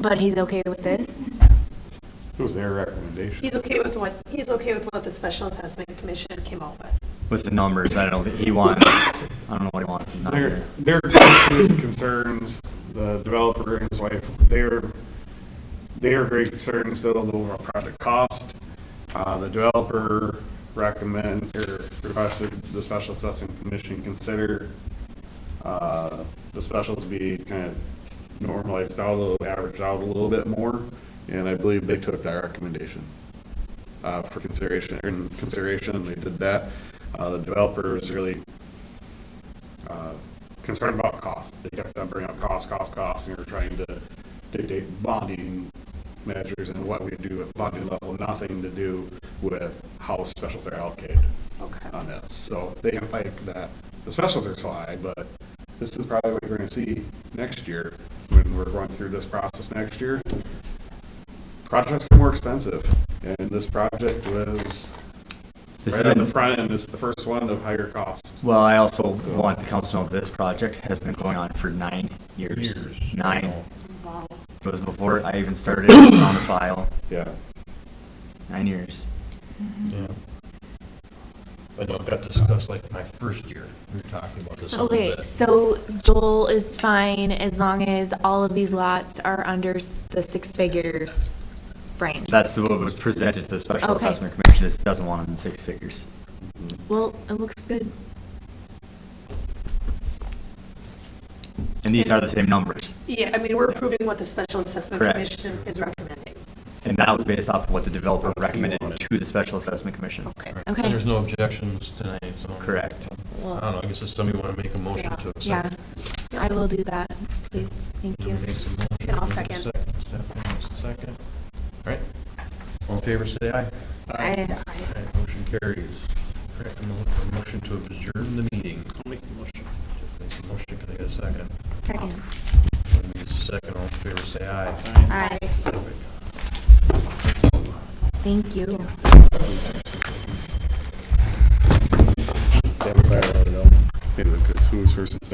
But he's okay with this? It was their recommendation. He's okay with what, he's okay with what the special assessment commission came up with. with the numbers. I don't think he wants, I don't know what he wants. He's not Their, here. their questions, concerns, the developer and his wife, they're, they are very concerned still of the overall project cost. Uh, the developer recommend, or requested the special assessing commission consider, uh, the specials be kind of normalized out a little, averaged out a little bit more, and I believe they took that recommendation uh, for consideration, or in consideration, they did that. Uh, the developer is really uh, concerned about cost. They kept on bringing up cost, cost, cost, and they were trying to dictate bonding measures and what we do at bonding level, nothing to do with how specials are allocated Okay. on this. So they have like that, the specials are so high, but this is probably what you're gonna see next year when we're going through this process next year. Projects are more expensive and this project was This right on the isn't- front end. It's the first one of higher cost. Well, I also want the council to know this project has been going on for nine years. Years. Nine. Wow. It was before I even started on the file. Yeah. Nine years. Yeah. I know it got discussed like my first year, we were talking about this a little Okay, bit. so Joel is fine as long as all of these lots are under s- the six-figure frame. That's the what was presented to the Special Okay. Assessment Commission. It doesn't want them in six figures. Well, it looks good. And these are the same numbers. Yeah, I mean, we're approving what the special assessment Correct. commission is recommending. And that was based off of what the developer recommended to the Special Assessment Commission. Okay. Okay. And there's no objections tonight, so. Correct. I don't know, I guess if somebody want to make a motion to accept. Yeah, I will do that, please, thank you. Somebody makes a motion, And I'll there's a second. Stephanie makes a second. All right, all in favor, say aye. I- All right, Motion carries. All right, I'm looking for a Motion to adjourn the meeting. I'll make the motion. Make the motion, can I get a second? Second. Somebody needs a Second, all in favor, say aye. Aye, Perfect. thank you. Everybody, I don't know. Maybe the who's first and second.